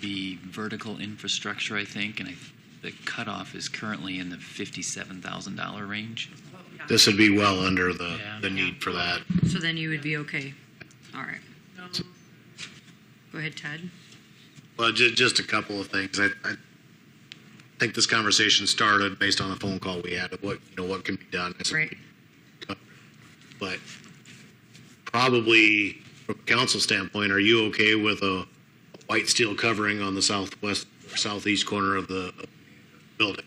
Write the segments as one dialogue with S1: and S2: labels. S1: the vertical infrastructure, I think, and I, the cutoff is currently in the fifty-seven thousand dollar range.
S2: This would be well under the,
S1: Yeah.
S2: the need for that.
S3: So then you would be okay. All right. Go ahead, Ted.
S2: Well, ju- just a couple of things. I, I think this conversation started based on the phone call we had of what, you know, what can be done. as a
S3: Right.
S2: But probably from a council standpoint, are you okay with a white steel covering on the southwest, or southeast corner of the building?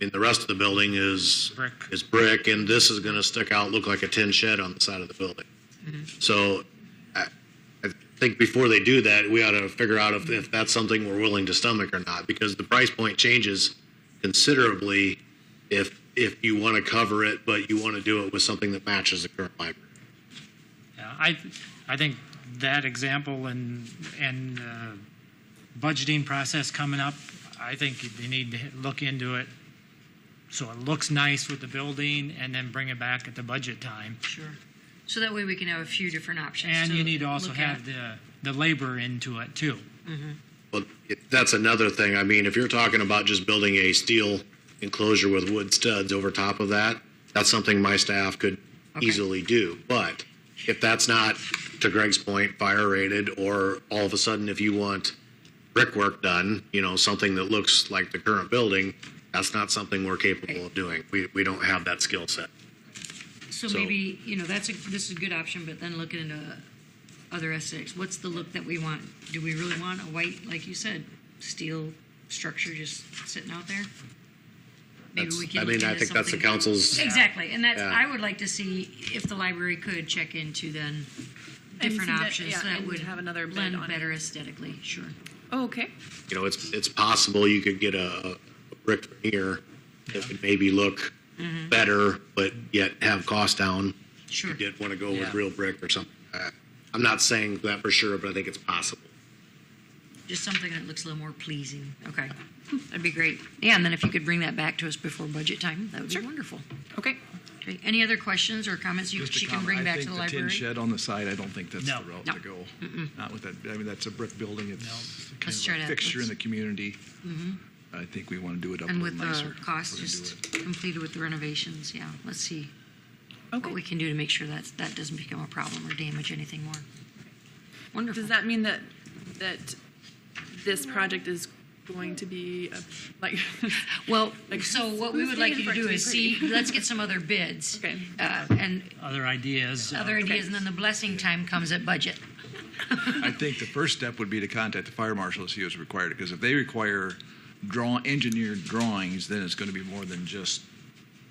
S2: And the rest of the building is.
S4: Brick.
S2: Is brick, and this is gonna stick out, look like a tin shed on the side of the building. So I think before they do that, we ought to figure out if, if that's something we're willing to stomach or not, because the price point changes considerably if, if you want to cover it, but you want to do it with something that matches the current library.
S4: Yeah, I, I think that example and, and uh, budgeting process coming up, I think you need to look into it. So it looks nice with the building and then bring it back at the budget time.
S3: Sure. So that way we can have a few different options.
S4: And
S3: to
S4: you need to also
S3: look
S4: have
S3: at.
S4: the, the labor into it too.
S2: But it- that's another thing. I mean, if you're talking about just building a steel enclosure with wood studs over top of that, that's something my staff could
S3: Okay.
S2: easily do. But if that's not, to Greg's point, fire rated, or all of a sudden if you want brickwork done, you know, something that looks like the current building, that's not something we're capable of doing. We, we don't have that skill set.
S3: So
S2: so-
S3: maybe, you know, that's a, this is a good option, but then looking into other aesthetics, what's the look that we want? Do we really want a white, like you said, steel structure just sitting out there? Maybe
S2: That's-
S3: we can.
S2: I
S3: look
S2: mean, I
S3: into
S2: think that's the
S3: something-
S2: council's,
S3: Exactly, and that's,
S2: Yeah.
S3: I would like to see if the library could check into then
S5: And
S3: different
S5: see that-
S3: options
S5: yeah,
S3: that
S5: and
S3: would
S5: have another bid
S3: blend
S5: on it.
S3: better aesthetically, sure.
S5: Oh, okay.
S2: you know, it's, it's possible you could get a a brick veneer that would maybe look better, but yet have cost down.
S3: Sure.
S2: You did want to go
S1: Yeah.
S2: with real brick or something. Uh, I'm not saying that for sure, but I think it's possible.
S3: Just something that looks a little more pleasing. Okay. That'd be great. Yeah, and then if you could bring that back to us before budget time, that would be wonderful.
S5: Okay.
S3: Okay. Any other questions or comments you,
S6: Just
S3: she
S6: a
S3: can
S6: comment.
S3: bring
S6: I
S3: back to
S6: think
S3: the
S6: tin
S3: library?
S6: shed on the side, I don't think that's
S4: No.
S6: the route
S3: No.
S6: to go. Not with that, I mean, that's a brick building, it's kind
S3: Let's try
S6: of
S3: that.
S6: a fixture in
S3: Let's- Mm-hmm.
S6: the community. I think we want to do it up a
S3: And
S6: little
S3: with
S6: nicer.
S3: the
S6: if
S3: cost
S6: we're gonna do
S3: just
S6: it.
S3: completed with the renovations, yeah. Let's see what we
S5: Okay.
S3: can do to make sure that that doesn't become a problem or damage anything more. Wonderful.
S5: Does that mean that, that this project is going to be, a- like,
S3: Well, so what we
S5: who's
S3: would like you to
S5: paying for it
S3: do
S5: to
S3: is
S5: be
S3: see, let's get some other bids.
S5: Okay.
S3: Uh, and
S4: Other ideas. uh,
S3: other ideas, and then the blessing time comes at budget.
S6: I think the first step would be to contact the fire marshal to see what's required, because if they require draw, engineered drawings, then it's going to be more than just,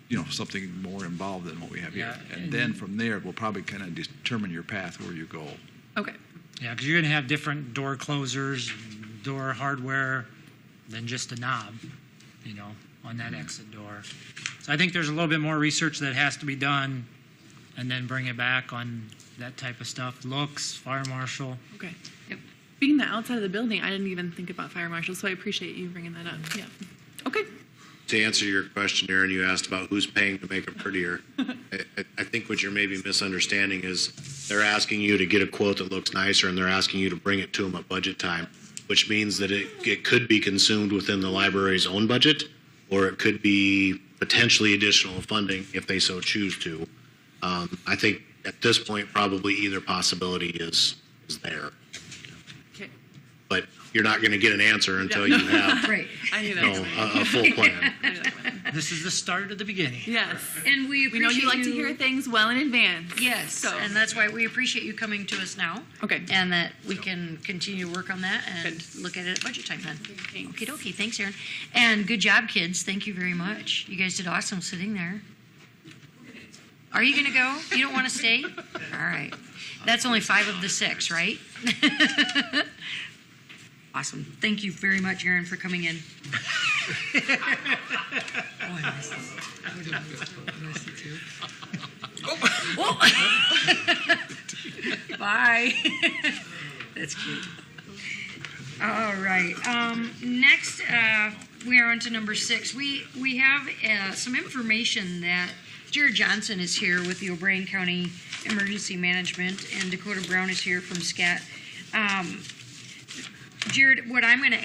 S6: you know, something more involved than what we have here.
S4: Yeah,
S6: And then from there, we'll probably kind of determine your path where you go.
S5: okay,
S4: Yeah, because you're going to have different door closers, door hardware than just a knob, you know, on that exit door. So I think there's a little bit more research that has to be done and then bring it back on that type of stuff. Looks, fire marshal.
S5: okay.
S3: Yep.
S5: Being the outside of the building, I didn't even think about fire marshals, so I appreciate you bringing that up. Yeah. Okay.
S2: To answer your question, Aaron, you asked about who's paying to make it prettier. I, I- I think what you're maybe misunderstanding is they're asking you to get a quote that looks nicer, and they're asking you to bring it to them at budget time, which means that it, it could be consumed within the library's own budget, or it could be potentially additional funding if they so choose to. Um, I think at this point, probably either possibility is, is there.
S5: Okay.
S2: but you're not going to get an answer until you have
S3: Right.
S5: I knew
S2: you
S5: that.
S2: know,
S5: was coming.
S2: a, a full plan.
S5: I knew that one.
S4: This is the start of the beginning.
S5: Yes.
S3: And we appreciate
S5: We know you like to hear things well in advance.
S3: Yes,
S5: So-
S3: and that's why we appreciate you coming to us now.
S5: Okay.
S3: And that we can continue to work on that and
S5: Good.
S3: look at it at budget time then.
S5: Thanks.
S3: Okay, dokie, thanks, Erin. And good job, kids, thank you very much. You guys did awesome sitting there. Are you gonna go? You don't wanna stay? All right. That's only five of the six, right? Awesome. Thank you very much, Erin, for coming in. Oh, I missed this. I would've missed it. I missed it too. Oh, Bye. That's cute. All right. Um, next, uh, we are on to number six. We we have uh, some information that Jared Johnson is here with the O'Brien County Emergency Management, and Dakota Brown is here from SCAT. Um, Jared, what I'm going to